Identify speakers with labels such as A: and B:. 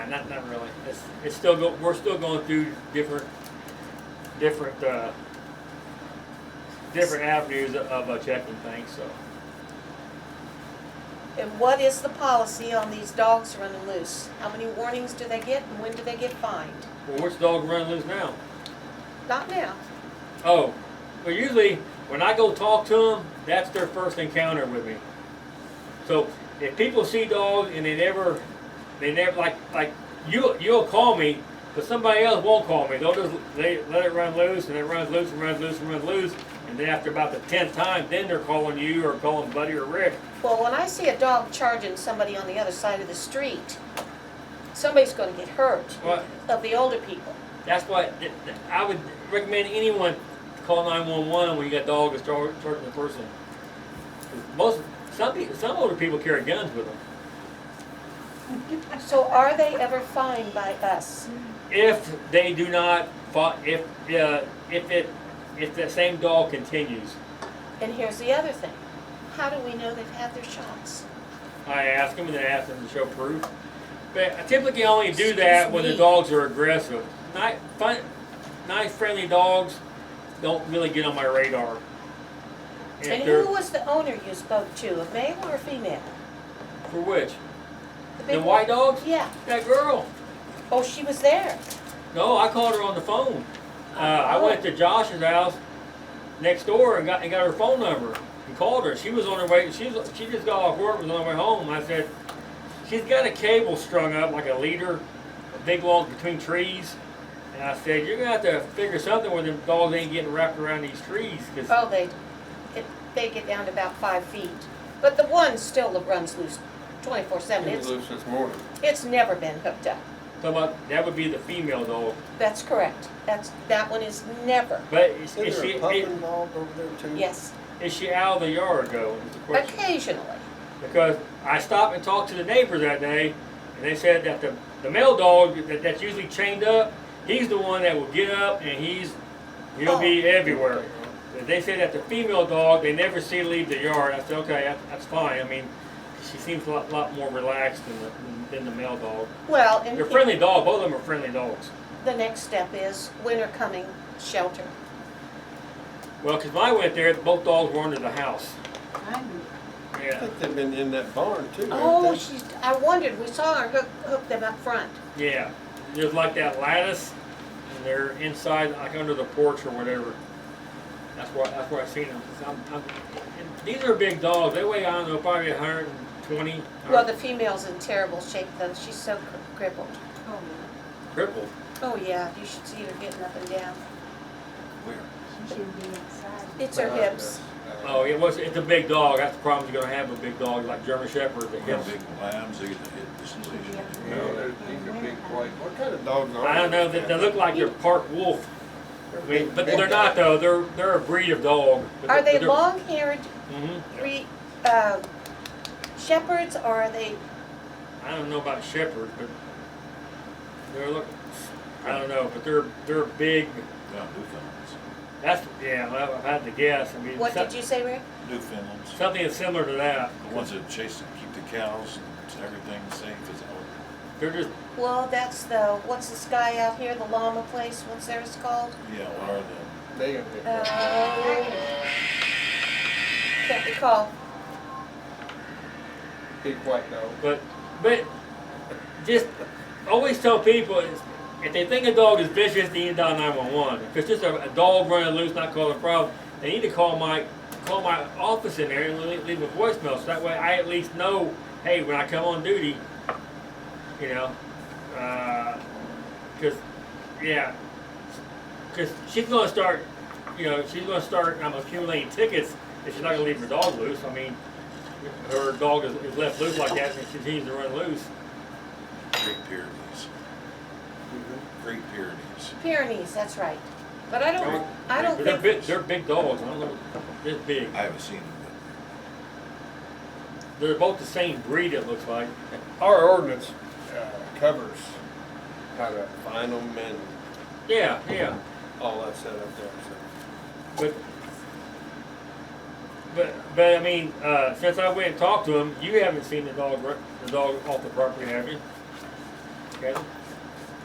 A: not, not really. It's, it's still go, we're still going through different, different, uh, different avenues of, of uh, checking things, so.
B: And what is the policy on these dogs running loose? How many warnings do they get and when do they get fined?
A: Well, which dog run loose now?
B: Not now.
A: Oh, well, usually when I go talk to them, that's their first encounter with me. So if people see dogs and they never, they never like like you you'll call me, but somebody else won't call me. They'll just they let it run loose and it runs loose and runs loose and runs loose, and then after about the tenth time, then they're calling you or calling Buddy or Rick.
B: Well, when I see a dog charging somebody on the other side of the street, somebody's gonna get hurt
A: Well,
B: of the older people.
A: that's why th- th- I would recommend anyone call nine one one when you got dog that's char- charging the person. Most some people, some older people carry guns with them.
B: So are they ever fined by us?
A: if they do not fo- if uh, if it if the same dog continues
B: And here's the other thing. How do we know they've had their shots?
A: i ask them and then ask them to show proof but i typically only do that
B: Excuse
A: when the
B: me.
A: dogs are aggressive nice fun nice friendly dogs don't really get on my radar If
B: And
A: they're-
B: who was the owner you spoke to, a male or a female?
A: for which
B: The
A: the
B: big
A: white dogs
B: Yeah.
A: that girl
B: Oh, she was there.
A: No, I called her on the phone. Uh, I went to Josh's house next door and got and got her phone number and called her. She was on her way. She was, she just got off work. Was on her way home. I said, she's got a cable strung up like a leader, a big log between trees. And I said, you're gonna have to figure something where them dogs ain't getting wrapped around these trees. 'cause-"
B: Oh, they, it, they get down to about five feet. But the one still runs loose twenty-four seven.
C: It
B: It's,
C: was loose this morning.
B: it's never been hooked up.
A: so about that would be the female dog.
B: That's correct. That's, that one is never,
A: But is,
C: Isn't
A: is
C: there
A: she
C: a pup
A: is,
C: involved over there too?
B: yes.
A: is she out of the yard though? Is the question.
B: Occasionally.
A: because I stopped and talked to the neighbor that day, and they said that the, the male dog that, that's usually chained up, he's the one that will get up and he's he'll be everywhere. But They said that the female dog they never see leave the yard. I said okay, that, that's fine. I mean, she seems a lot, lot more relaxed than the, than the male dog.
B: Well, and
A: They're friendly dog. Both of them are friendly dogs.
B: the next step is winter coming, shelter.
A: Well, 'cause when I went there, both dogs were under the house.
C: I
A: Yeah,
C: think they've been in that barn too. haven't
B: Oh,
C: they?
B: she, I wondered, we saw her hook, hook them up front.
A: yeah. There's like that lattice, and they're inside, like under the porch or whatever. That's where that's where I seen them. 'Cause I'm, I'm, and these are big dogs. They weigh I don't know probably 120.
B: Well, the female's in terrible shape though. She's so cr- crippled.
A: crippled.
B: Oh, yeah, you should see her getting up and down.
D: She should be outside.
B: It's her
C: Uh,
B: hips.
A: Oh, it was it's a big dog. That's the problem you're gonna have with big dogs like German Shepherd. The
E: They're
A: hips.
E: big lambs, they get to hit this leash.
C: Yeah, they're, these are big white, what kind of dogs are they?
A: I don't know. They, they look like they're park wolf. I mean,
C: Big-
A: but
C: big
A: they're not
C: dogs.
A: though. They're they're a breed of dog. But
B: Are they
A: they're-
B: long-haired
A: Mhm.
B: re, uh, shepherds or are they,
A: I don't know about shepherds, but they're look. I don't know, but they're they're big.
E: Now, Newfoundlands,
A: That's yeah. well, I've had to guess. I mean,
B: what
A: some-
B: did you say, Rick?
E: Newfoundlands,
A: something that's similar to that.
E: the ones that chase and keep the cows and everything safe is out,
A: They're just
B: Well, that's the, what's this guy out here, the llama place, what's theirs called?
E: yeah, what are they?
C: They are big.
B: Uh, Can't recall.
C: Big white dog.
A: but but just always tell people is if they think a dog is vicious, they need to dial nine one one. If it's just a, a dog running loose, not causing a problem, they need to call my call my office in there and leave, leave a voicemail. So that way, I at least know, hey, when I come on duty, you know, because yeah, because she's gonna start, you know, she's gonna start um, accumulating tickets if she's not gonna leave her dog loose. I mean, her dog is, is left loose like that and she continues to run loose.
E: Great Pyrenees,
C: Mm-hmm.
E: Great Pyrenees.
B: Pyrenees, that's right. But I don't, I don't
A: But They're
B: think,
A: big, they're big dogs. I don't know, they're big.
E: I haven't seen them,
A: They're both the same breed. It looks like.
C: Our ordinance, uh, covers how to find them and
A: Yeah, yeah.
C: all that set up there, so.
A: But but but I mean, uh, since I went and talked to him, you haven't seen the dog ru- the dog off the property, have you?
E: but
A: schedule?